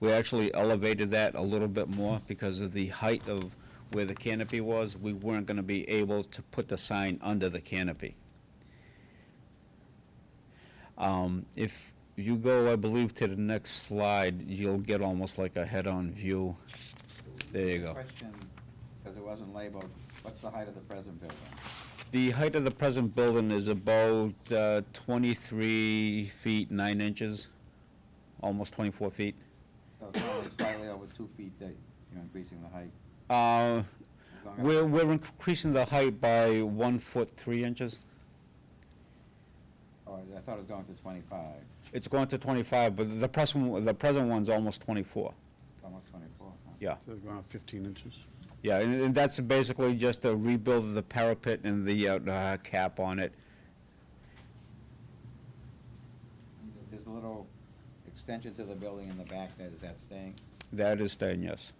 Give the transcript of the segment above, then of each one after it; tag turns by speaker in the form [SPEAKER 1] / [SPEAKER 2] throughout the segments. [SPEAKER 1] We actually elevated that a little bit more because of the height of where the canopy was. We weren't gonna be able to put the sign under the canopy. Um, if you go, I believe, to the next slide, you'll get almost like a head-on view. There you go.
[SPEAKER 2] Question, because it wasn't labeled, what's the height of the present building?
[SPEAKER 1] The height of the present building is about uh, 23 feet 9 inches, almost 24 feet.
[SPEAKER 2] So it's only slightly over two feet that you're increasing the height.
[SPEAKER 1] Uh,
[SPEAKER 2] As long as-
[SPEAKER 1] We're, we're increasing the height by 1 foot 3 inches.
[SPEAKER 2] Or Oh, I thought it was going to twenty-five,
[SPEAKER 1] It's going to 25, but the present, the present one's almost 24.
[SPEAKER 2] it's almost twenty-four. huh?
[SPEAKER 1] Yeah,
[SPEAKER 3] So they've gone up 15 inches.
[SPEAKER 1] yeah, and and that's basically just a rebuild of the parapet and the uh, uh, cap on it.
[SPEAKER 2] There's a little extension to the building in the back that, is that staying?
[SPEAKER 1] That is staying, yes.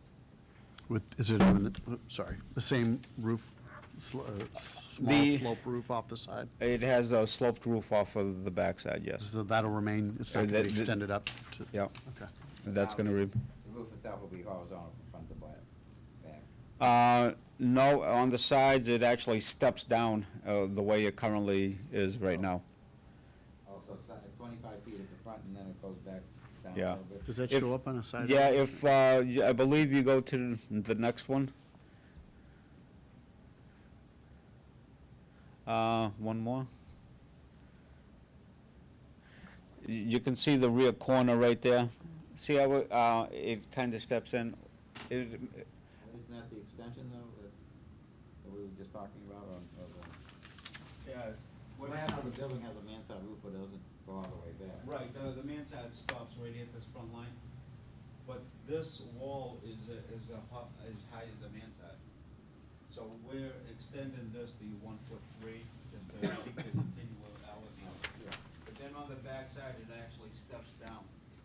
[SPEAKER 3] With, is it on the, oh, sorry, the same roof, sl- uh, s- small
[SPEAKER 1] The-
[SPEAKER 3] slope roof off the side?
[SPEAKER 1] It has a sloped roof off of the backside, yes.
[SPEAKER 3] So that'll remain, it's
[SPEAKER 1] Uh,
[SPEAKER 3] not going to
[SPEAKER 1] that-
[SPEAKER 3] be
[SPEAKER 1] that-
[SPEAKER 3] extended up to?
[SPEAKER 1] Yeah,
[SPEAKER 3] Okay.
[SPEAKER 1] that's going to re...
[SPEAKER 2] The roof itself will be horizontal from front to back, back.
[SPEAKER 1] Uh, No, on the sides, it actually steps down uh, the way it currently is right now.
[SPEAKER 2] Also, twenty-five feet at the front and then it goes back down
[SPEAKER 1] Yeah.
[SPEAKER 2] a little bit.
[SPEAKER 3] Does that
[SPEAKER 1] If-
[SPEAKER 3] show up on a side?
[SPEAKER 1] Yeah, if, uh, y- I believe you go to the next one. Uh, One more. Y- You can see the rear corner right there. See how it, uh, it kind of steps in? It-
[SPEAKER 2] Isn't that the extension though, that, that we were just talking about on, of the? What happened if the building has a mansard roof but doesn't go all the way back?
[SPEAKER 4] Right, the, the mansard stops right at this front line, but this wall is, a- is a hu- as high as the mansard. So we're extending this to one foot three, just to keep the continuality.
[SPEAKER 2] Yeah.
[SPEAKER 4] But then on the backside, it actually steps down.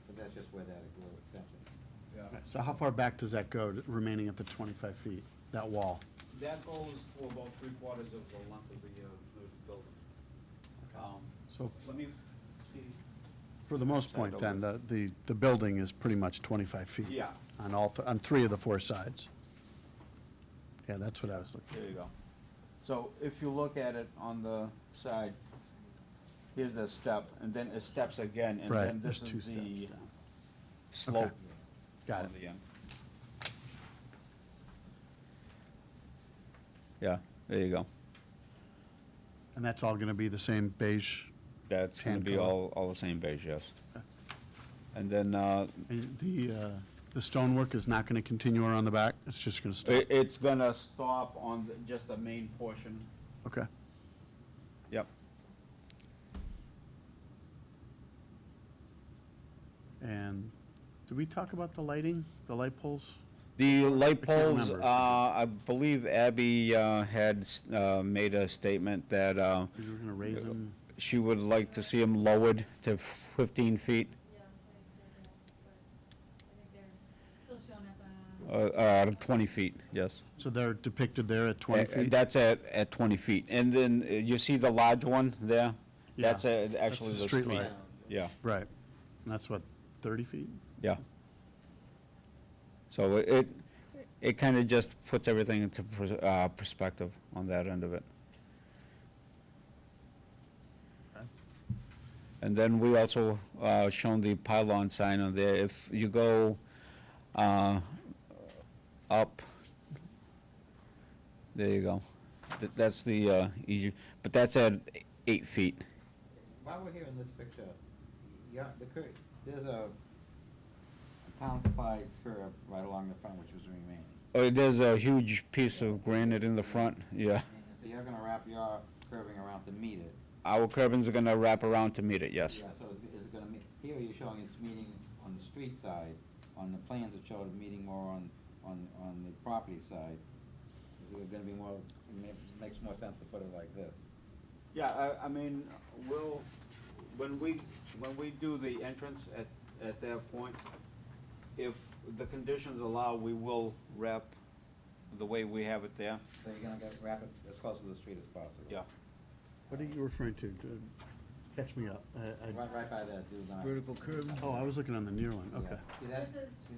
[SPEAKER 2] But that's just where that little extension.
[SPEAKER 4] Yeah.
[SPEAKER 3] So how far back does that go, remaining at the 25 feet, that wall?
[SPEAKER 4] That goes for about three quarters of the length of the, uh, the building. Um,
[SPEAKER 3] So
[SPEAKER 4] let me see,
[SPEAKER 3] for the most part, then, the, the, the building is pretty much 25 feet?
[SPEAKER 4] Yeah.
[SPEAKER 3] On all, th- on three of the four sides? Yeah, that's what I was looking,
[SPEAKER 4] there you go.
[SPEAKER 1] So if you look at it on the side, here's the step, and then it steps again, and
[SPEAKER 3] Right,
[SPEAKER 1] then this
[SPEAKER 3] there's two
[SPEAKER 1] is the
[SPEAKER 3] steps,
[SPEAKER 1] slope.
[SPEAKER 3] got
[SPEAKER 1] on
[SPEAKER 3] it.
[SPEAKER 1] the end. Yeah, there you go.
[SPEAKER 3] And that's all going to be the same beige?
[SPEAKER 1] That's gonna
[SPEAKER 3] Tan
[SPEAKER 1] be
[SPEAKER 3] color.
[SPEAKER 1] all, all the same beige, yes. And then, uh,
[SPEAKER 3] And The, uh, the stonework is not going to continue around the back? It's just going to stop?
[SPEAKER 1] it, it's gonna stop on the- just the main portion.
[SPEAKER 3] Okay.
[SPEAKER 1] Yep.
[SPEAKER 3] And did we talk about the lighting, the light poles?
[SPEAKER 1] The light
[SPEAKER 3] I can't
[SPEAKER 1] poles, uh,
[SPEAKER 3] remember.
[SPEAKER 1] I believe Abby, uh, had, s- uh, made a statement that, uh,
[SPEAKER 3] We were going to raise them?
[SPEAKER 1] she would like to see them lowered to fifteen feet,
[SPEAKER 5] Yeah, so I said that, but I think they're still showing up,
[SPEAKER 1] uh,
[SPEAKER 5] uh,
[SPEAKER 1] uh, twenty feet, yes.
[SPEAKER 3] So they're depicted there at 20
[SPEAKER 1] Uh,
[SPEAKER 3] feet?
[SPEAKER 1] That's at, at twenty feet. And then uh, you see the large one there?
[SPEAKER 3] Yeah.
[SPEAKER 1] That's uh, actually
[SPEAKER 3] the
[SPEAKER 1] the
[SPEAKER 3] street
[SPEAKER 1] street.
[SPEAKER 3] light.
[SPEAKER 1] Yeah,
[SPEAKER 3] Right. And that's what, 30 feet?
[SPEAKER 1] yeah. So it- it, it kind of just puts everything into pers- uh, perspective on that end of it. And then we also uh, shown the pylon sign on there. If you go uh, up, there you go. Th- That's the uh, easy, but that's at eight feet.
[SPEAKER 2] While we're here in this picture, yeah, the cur, there's a a town supply curb right along the front which was remaining.
[SPEAKER 1] Oh, there's a huge piece of granite in the front, yeah.
[SPEAKER 2] So you're gonna wrap your curving around to meet it.
[SPEAKER 1] Our curbings are gonna wrap around to meet it, yes.
[SPEAKER 2] Yeah, so is it gonna meet, here you're showing it's meeting on the street side, on the plans it showed it meeting more on, on, on the property side. Is it gonna be more, it ma- makes more sense to put it like this?
[SPEAKER 1] Yeah, I, I mean, we'll, when we, when we do the entrance at, at that point, if the conditions allow, we will wrap the way we have it there,
[SPEAKER 2] So you're gonna get, wrap it as close to the street as possible?
[SPEAKER 1] yeah.
[SPEAKER 3] What are you referring to? Catch me up. I- I-
[SPEAKER 2] Right, right by that dude. line.
[SPEAKER 6] Vertical curve.
[SPEAKER 3] Oh, I was looking on the near one,
[SPEAKER 2] Yeah.
[SPEAKER 3] okay.
[SPEAKER 2] See that?
[SPEAKER 5] This is-
[SPEAKER 2] See